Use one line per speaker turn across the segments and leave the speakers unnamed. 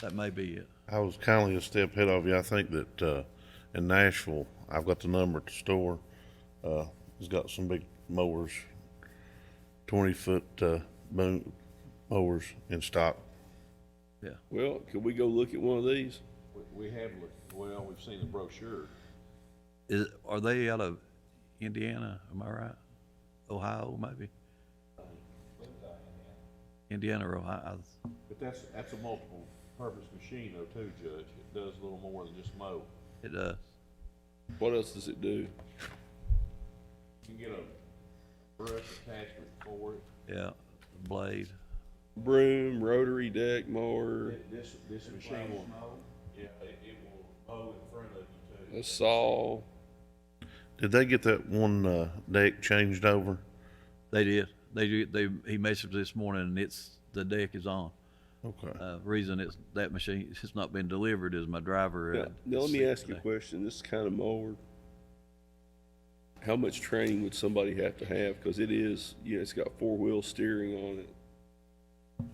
That may be it.
I was kindly a step ahead of you. I think that uh, in Nashville, I've got the number at the store. Uh, it's got some big mowers, twenty foot uh, boom mowers in stock.
Yeah.
Well, could we go look at one of these?
We- We have looked, well, we've seen the brochure.
Is, are they out of Indiana? Am I right? Ohio, maybe? Indiana or Ohio?
But that's, that's a multiple purpose machine though too, Judge. It does a little more than just mow.
It, uh,
What else does it do?
You can get a brush attachment for it.
yeah, blade.
Broom, rotary deck, mower,
Th- This, this machine will. Yeah, it, it will mow in front of you too.
a saw.
Did they get that one uh, deck changed over?
They did. They, do- they, he messaged this morning and it's, the deck is on.
Okay.
Uh, reason it's, that machine, it's not been delivered is my driver.
Now,
uh,
now let me
sick
ask you a
today.
question. This kind of mower. How much training would somebody have to have? Because it is, yeah, it's got four wheel steering on it.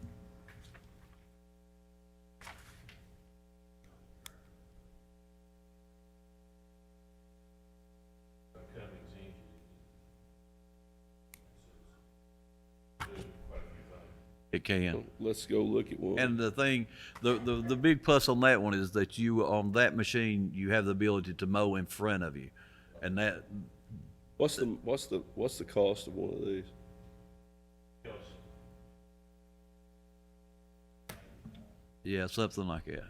It can.
Let's go look at one.
And the thing, the, the, the big plus on that one is that you, on that machine, you have the ability to mow in front of you. And that,
What's the, what's the, what's the cost of one of these?
yeah, something like that.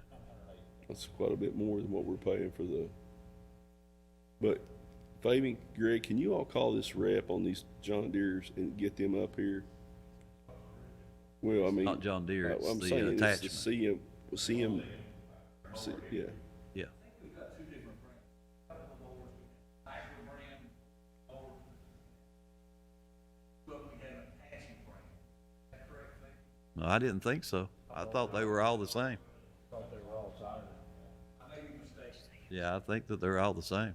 That's quite a bit more than what we're paying for the. But Fabian, Greg, can you all call this rep on these John Deere's and get them up here? Well, I mean.
Not John Deere,
I-
it's
I'm
the, uh,
saying it's
attachment.
CM, CM, C- yeah.
Yeah. No, I didn't think so. I thought they were all the same. Yeah, I think that they're all the same.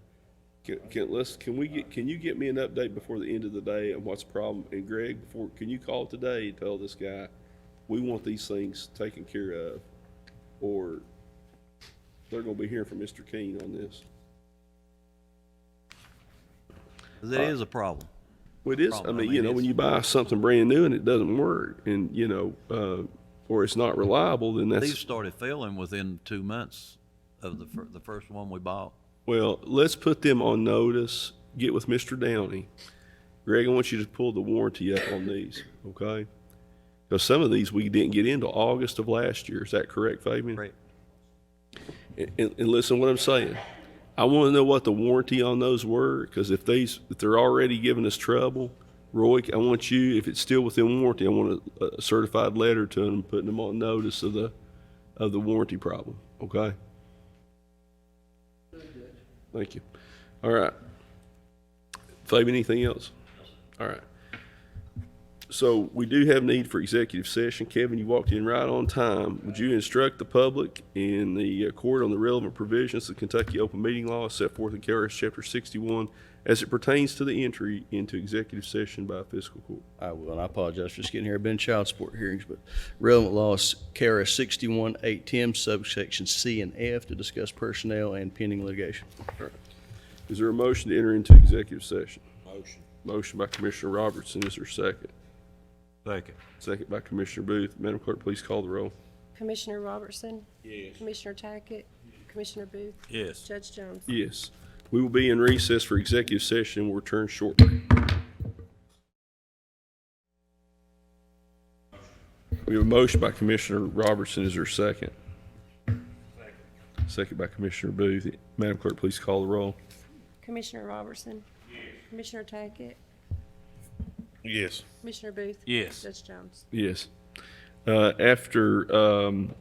Can, can, let's, can we get, can you get me an update before the end of the day on what's the problem? And Greg, before, can you call today and tell this guy, we want these things taken care of? Or they're gonna be hearing from Mr. King on this.
'Cause It is a problem.
Well, it is. I
problem. I
mean,
mean,
you know, when
it's-
you buy something brand new and it doesn't work, and you know, uh, or it's not reliable, then
These
that's
started failing within two months of the, fir- the first one we bought.
well. Let's put them on notice. Get with Mr. Downey. Greg, I want you to pull the warranty up on these, okay? Because some of these we didn't get into August of last year. Is that correct, Fabian?
Right.
And, and listen to what I'm saying. I want to know what the warranty on those were, because if these, if they're already giving us trouble, Roy, I want you, if it's still within warranty, I want a, a certified letter to them, putting them on notice of the, of the warranty problem, okay? Thank you. All right. Fabian, anything else? All right. So we do have need for executive session. Kevin, you walked in right on time. Would you instruct the public in the uh, court on the relevant provisions of Kentucky Open Meeting Law as set forth in KRS Chapter 61 as it pertains to the entry into executive session by a fiscal court?
I will, and I apologize for just getting here. I've been in child support hearings, but relevant laws, KRS sixty-one, eight ten, subsection C and F to discuss personnel and pending litigation.
Is there a motion to enter into executive session?
Motion.
Motion by Commissioner Robertson, is there a second?
Second.
Second by Commissioner Booth. Madam Clerk, please call the roll.
Commissioner Robertson?
Yes.
Commissioner Tackett? Commissioner Booth?
Yes.
Judge Jones?
Yes. We will be in recess for executive session. We'll return shortly. We have a motion by Commissioner Robertson. Is there a second? Second by Commissioner Booth. Madam Clerk, please call the roll.
Commissioner Robertson? Commissioner Tackett?
Yes.
Commissioner Booth? Yes. Judge Jones?
Yes. Uh, After um,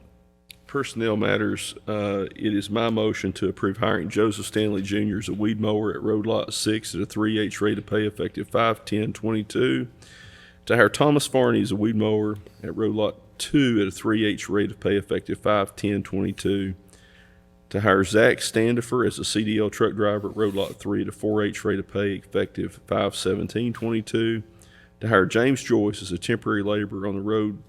personnel matters, uh, it is my motion to approve hiring Joseph Stanley Jr. as a weed mower at Road Lot 6 at a 3H rate of pay effective 5/10/22. To hire Thomas Farney as a weed mower at Road Lot 2 at a 3H rate of pay effective 5/10/22. To hire Zach Standifer as a CDL truck driver at Road Lot 3 at a 4H rate of pay effective 5/17/22 to hire James Joyce as a temporary laborer on the road